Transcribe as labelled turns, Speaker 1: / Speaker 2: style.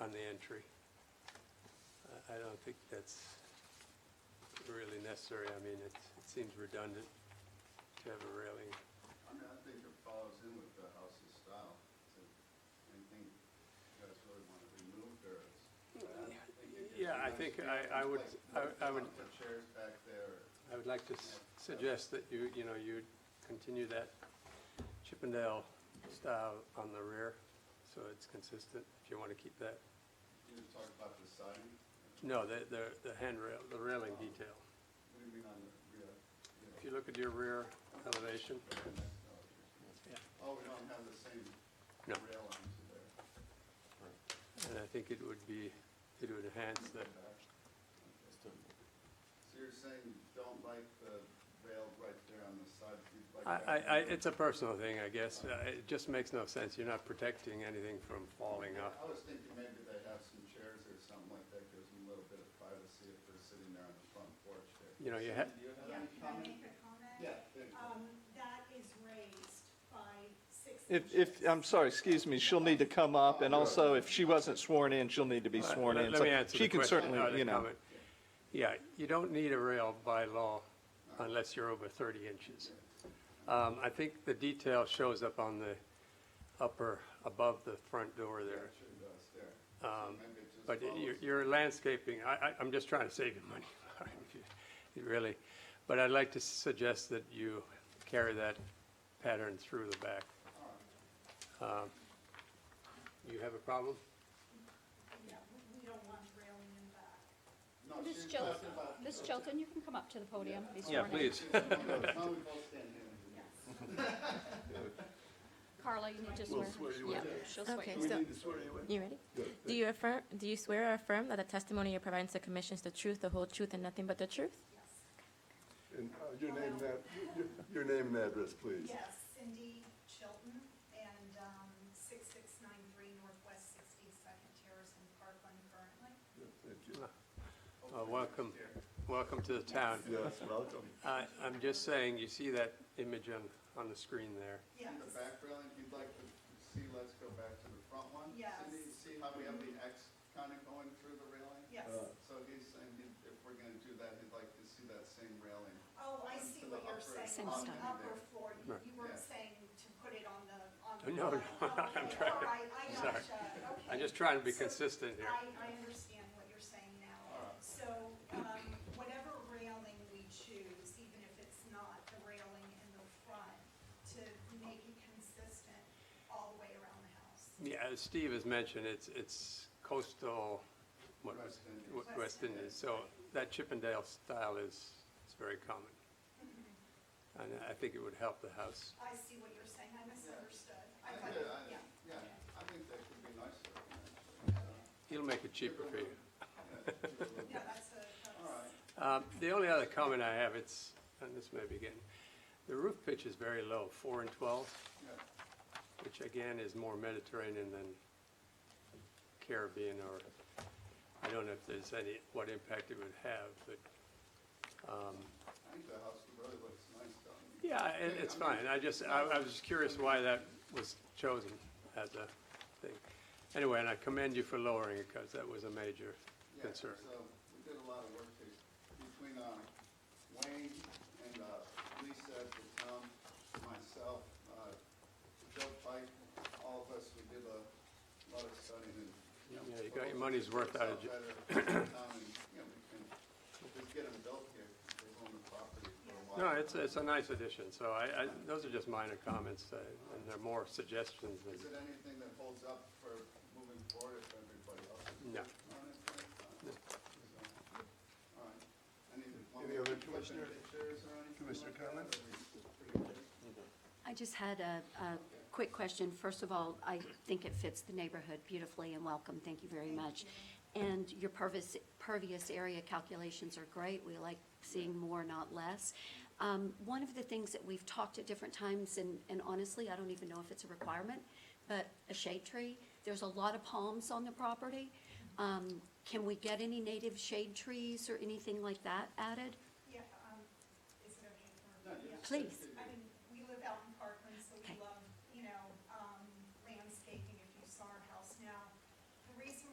Speaker 1: on the entry. I- I don't think that's really necessary. I mean, it's- it seems redundant to have a railing.
Speaker 2: I mean, I think it follows in with the house's style. So Anything you guys really want to remove there is.
Speaker 1: Yeah, I think I- I would- I- I would-
Speaker 2: Put chairs back there.
Speaker 1: I would like to s- suggest that you, you know, you continue that Chippendale style on the rear, so it's consistent, if you want to keep that.
Speaker 2: You were talking about the siding.
Speaker 1: No, the, the the handrail, the railing detail.
Speaker 2: What do you mean on the rear? you know,
Speaker 1: If you look at your rear elevation,
Speaker 2: very next elevation?
Speaker 1: yeah,
Speaker 2: Oh, we don't have the same
Speaker 1: No.
Speaker 2: rail lines there.
Speaker 1: and I think it would be, it would enhance the,
Speaker 2: So you're saying you don't like the rail right there on the side? you'd like
Speaker 1: I,
Speaker 2: that
Speaker 1: I, I-
Speaker 2: to be-
Speaker 1: it's a personal thing, I guess. Uh, It just makes no sense. You're not protecting anything from falling off.
Speaker 2: I was thinking maybe they have some chairs or something like that, gives them a little bit of privacy if they're sitting there on the front porch there.
Speaker 1: You know, you have,
Speaker 2: Do you have
Speaker 3: Yeah,
Speaker 2: any
Speaker 3: can I
Speaker 2: comment?
Speaker 3: make a comment?
Speaker 2: Yeah, there you go.
Speaker 3: Um, that is raised by six inches.
Speaker 4: If, if, I'm sorry, excuse me, she'll need to come up, and also, if she wasn't sworn in, she'll need to be
Speaker 1: Let-
Speaker 4: sworn
Speaker 1: let-
Speaker 4: in.
Speaker 1: Let
Speaker 4: So
Speaker 1: me answer the
Speaker 4: She can
Speaker 1: question, not
Speaker 4: certainly,
Speaker 1: the
Speaker 4: you know,
Speaker 1: comment. Yeah, you don't need a rail by law unless you're over 30 inches. Um, I think the detail shows up on the upper, above the front door
Speaker 2: Yeah,
Speaker 1: there.
Speaker 2: it should does there. So maybe it just
Speaker 1: Um, But your,
Speaker 2: follows.
Speaker 1: your landscaping, I, I, I'm just trying to save you money, if you- really. But I'd like to suggest that you carry that pattern through the back. Um, You have a problem?
Speaker 3: Yeah, we- we don't want railing in back.
Speaker 2: No,
Speaker 5: Miss
Speaker 2: she's
Speaker 5: Chilton,
Speaker 2: talking about.
Speaker 5: Miss Chilton, you can come up to the podium. be
Speaker 4: Yeah,
Speaker 5: sworn in.
Speaker 4: please.
Speaker 2: Now we both stand here.
Speaker 3: Yes.
Speaker 5: Carla, you need to swear. Yeah, she'll swear
Speaker 6: Okay,
Speaker 5: you in.
Speaker 6: so, you ready? Do you affirm, do you swear or affirm that the testimony you provide to the commission is the truth, the whole truth, and nothing but the truth?
Speaker 3: Yes.
Speaker 7: And uh, your name and, ad- your- your name and address, please.
Speaker 3: Yes, Cindy Chilton and, um, six six nine three Northwest Sixty-second Terrace in Parkland currently.
Speaker 7: Thank you.
Speaker 1: Uh, Welcome, welcome to the town.
Speaker 7: Yes, welcome.
Speaker 1: I- I'm just saying, you see that image on, on the screen there?
Speaker 2: In the
Speaker 3: Yes,
Speaker 2: back railing, if you'd like to see, let's go back to the front one.
Speaker 3: Yes.
Speaker 2: Cindy, you see how we have the X kind of going through the railing?
Speaker 3: yes.
Speaker 2: So he's saying he- if we're gonna do that, he'd like to see that same railing.
Speaker 3: Oh, I see what you're saying.
Speaker 5: Same
Speaker 3: on the
Speaker 2: style.
Speaker 3: Upper floor, You- you
Speaker 2: Yeah.
Speaker 3: weren't saying to put it on the, on the.
Speaker 1: No, no,
Speaker 3: bottom.
Speaker 1: I'm
Speaker 3: Okay,
Speaker 1: trying-
Speaker 3: All right, I
Speaker 1: sorry.
Speaker 3: gotcha, okay.
Speaker 1: I'm just trying to be
Speaker 3: So
Speaker 1: consistent here.
Speaker 3: I, I understand what you're saying
Speaker 2: All
Speaker 3: now.
Speaker 2: right.
Speaker 3: So, um, whatever railing we choose, even if it's not the railing in the front, to make it consistent all the way around the house.
Speaker 1: Yeah, as Steve has mentioned, it's, it's coastal, what was,
Speaker 2: West Indies.
Speaker 1: what- West Indies. So that Chippendale style is, is very common. And I think it would help the house.
Speaker 3: I see what you're saying, I misunderstood. I
Speaker 2: Yeah,
Speaker 3: thought,
Speaker 2: I-
Speaker 3: yeah.
Speaker 2: Yeah, I think that could be nice looking, actually.
Speaker 1: It'll make it cheaper for you.
Speaker 3: No, that's a,
Speaker 2: All right.
Speaker 1: Um,
Speaker 3: that's,
Speaker 1: The only other comment I have, it's, and this may be getting, the roof pitch is very low, four and 12,
Speaker 2: Yeah.
Speaker 1: which again is more Mediterranean than Caribbean or, I don't know if there's any, what impact it would have, but
Speaker 2: I think the house really looks nice, doesn't it?
Speaker 1: Yeah, it, it's fine. I just, I, I was just curious why that was chosen as a thing. Anyway, and I commend you for lowering it because that was a major
Speaker 2: Yeah,
Speaker 1: concern.
Speaker 2: So we did a lot of work to- between uh, Wayne and uh, Lisa, at the town, myself, uh, Joe Pike, all of us, we did a lot of studying and.
Speaker 1: Yeah, you got your money's worth out of Jo-
Speaker 2: Better for the town and, you know, we can just get them built here, they own the property for a while.
Speaker 1: No, it's, it's a nice addition, so I, I, those are just minor comments, uh, and they're more suggestions
Speaker 2: Is it
Speaker 1: than,
Speaker 2: anything that holds up for moving forward if everybody else is?
Speaker 1: No.
Speaker 2: on it? So, All right. Any- want
Speaker 7: Any
Speaker 2: me to
Speaker 7: other
Speaker 2: put
Speaker 7: commissioner-
Speaker 2: pictures or anything
Speaker 7: commissioner
Speaker 2: like that,
Speaker 7: comments?
Speaker 2: or we- pretty good?
Speaker 5: I just had a, a quick question. First of all, I think it fits the neighborhood beautifully and welcome. Thank you very much. And your pervious, pervious area calculations are great. We like seeing more, not less. Um, one of the things that we've talked at different times, and, and honestly, I don't even know if it's a requirement, but a shade tree. There's a lot of palms on the property. Um, can we get any native shade trees or anything like that added?
Speaker 3: yeah, um, is it okay for?
Speaker 2: No, you
Speaker 3: yeah.
Speaker 2: just-
Speaker 5: Please.
Speaker 3: um,